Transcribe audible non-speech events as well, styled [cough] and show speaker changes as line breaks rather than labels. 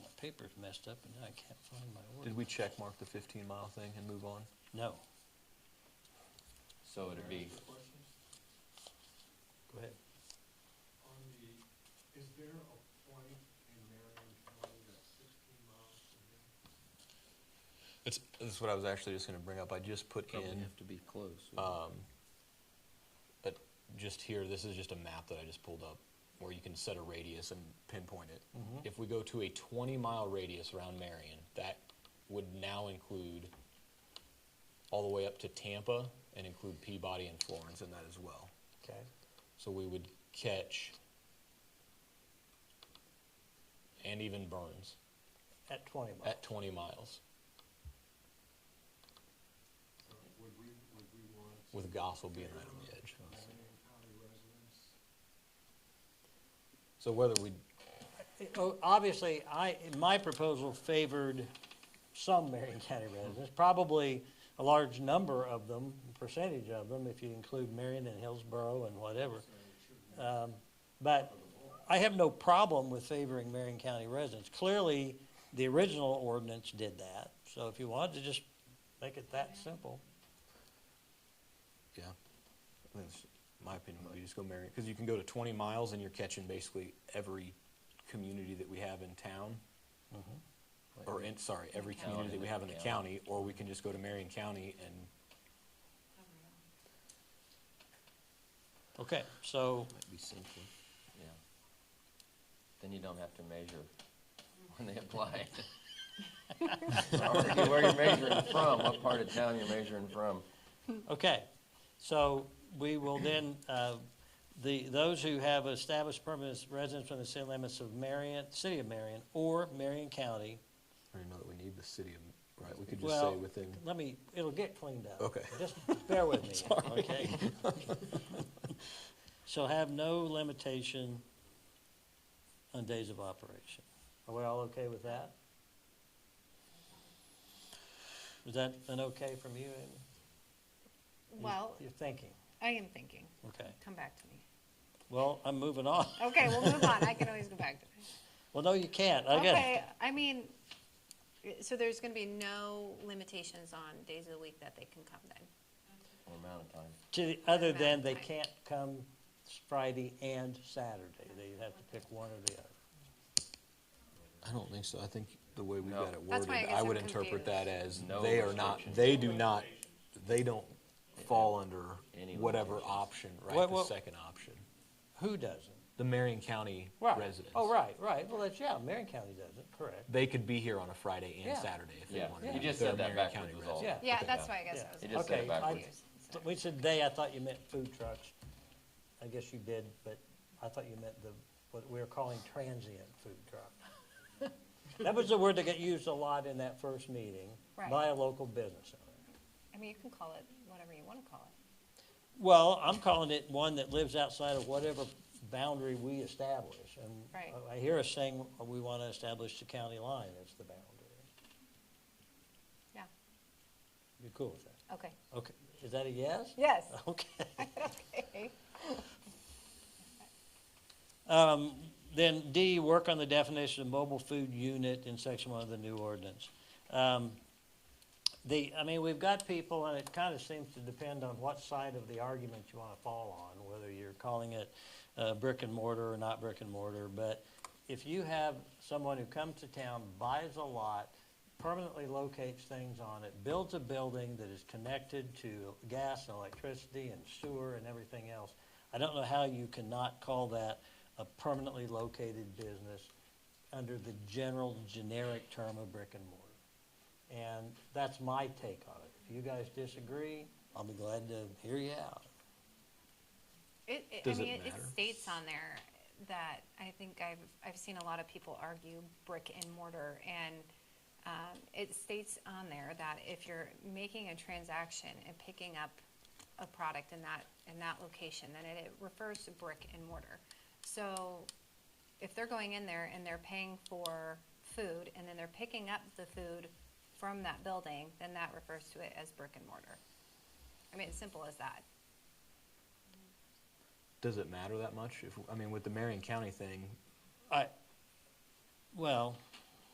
paper's messed up and now I can't find my order.
Did we check mark the 15 mile thing and move on?
No.
So it'd be,
Questions
Go ahead.
on the, is there a point in Marion County that's sixteen miles from here?
It's, that's what I was actually just gonna bring up. I just put
probably
in,
have to be close.
um, but just here, this is just a map that I just pulled up where you can set a radius and pinpoint it. If we go to a 20 mile radius around Marion, that would now include all the way up to Tampa and include Peabody and Florence in that as well.
Okay.
So we would catch and even Burns
At twenty miles.
at 20 miles
So Would we, would we want?
with Goss will being right on the edge.
Marion County residents?
So whether we
Oh, Obviously, I, my proposal favored some Marion County residents, probably a large number of them, percentage of them, if you include Marion and Hillsborough and whatever. Um, But I have no problem with favoring Marion County residents. Clearly, the original ordinance did that, so if you wanted to just make it that simple.
Yeah. I think it's- My opinion would be just go Marion, because you can go to twenty miles and you're catching basically every community that we have in town. Or in, sorry, every
County.
community that we have in the county, or we can just go to Marion County and,
Okay, so,
Might be simpler, yeah. Then you don't have to measure when they apply. Already Where you're measuring from, what part of town you're measuring from.
okay, so we will then, uh, the, those who have established permanent residence within the city limits of Marion, city of Marion, or Marion County,
I don't know that we need the city of, right, we could just
well,
say within.
let me, it'll get cleaned up.
Okay.
Just bear with me, okay? [laughs] Shall have no limitation on days of operation. Are we all okay with that? Is that an okay from you, Amy?
Mm.
You're-
Well,
You're thinking,
I am thinking,
okay.
come back to me.
Well, I'm moving on.
Okay, we'll move on, I can always go back to
[laughs]
it.
Well, no, you can't. I
Okay,
got,
I mean, so there's gonna be no limitations on days of the week that they can come then?
Or amount of time.
to, the- other than they can't come Friday and Saturday. They have to pick one or the other.
I don't think so. I think the way we
No.
got it worded,
That's why I guess
I would
I'm
interpret that
confused.
as
No
they are not,
restrictions.
they do not, they don't fall under
Any
whatever
limitations.
option, right,
What-
the
what-
second option.
Who doesn't?
The Marion County
Right.
residents.
Oh, right, right. Well, that's, yeah, Marion County doesn't, correct.
They could be here on a Friday and
Yeah.
Saturday if
Yeah.
they wanted.
You
to.
just
They're
said that
Marion
backwards
County
was all.
residents.
Yeah,
Okay.
that's why I guess I
Yeah.
was.
You just said it
Okay, I-
backwards.
confused.
But We said they, I thought you meant food trucks. I guess you did, but I thought you meant the, what we were calling transient food [laughs] truck. That was the word that got used a lot in that first meeting
Right.
by a local business owner.
I mean, you can call it whatever you wanna call it.
Well, I'm calling it one that lives outside of whatever boundary we establish. And
Right.
I hear us saying we want to establish the county line as the boundary.
Yeah,
You cool with that?
okay.
Okay, is that a yes?
Yes.
[laughs]
[laughs]
Okay.
Okay.
Um, Then D, work on the definition of mobile food unit in section one of the new ordinance. Um, The, I mean, we've got people, and it kind of seems to depend on what side of the argument you want to fall on, whether you're calling it uh, brick and mortar or not brick and mortar, but if you have someone who comes to town, buys a lot, permanently locates things on it, builds a building that is connected to gas and electricity and sewer and everything else, I don't know how you cannot call that a permanently located business under the general generic term of brick and mortar. And that's my take on it. If you guys disagree, I'll be glad to hear you out.
It, it, I
Does it
mean, it, it
matter?
states on there that I think I've, I've seen a lot of people argue brick and mortar, and um, it states on there that if you're making a transaction and picking up a product in that, in that location, then it, it refers to brick and mortar. So if they're going in there and they're paying for food, and then they're picking up the food from that building, then that refers to it as brick and mortar. I mean, it's simple as that.
Does it matter that much? If, I mean, with the Marion County thing,
I, well,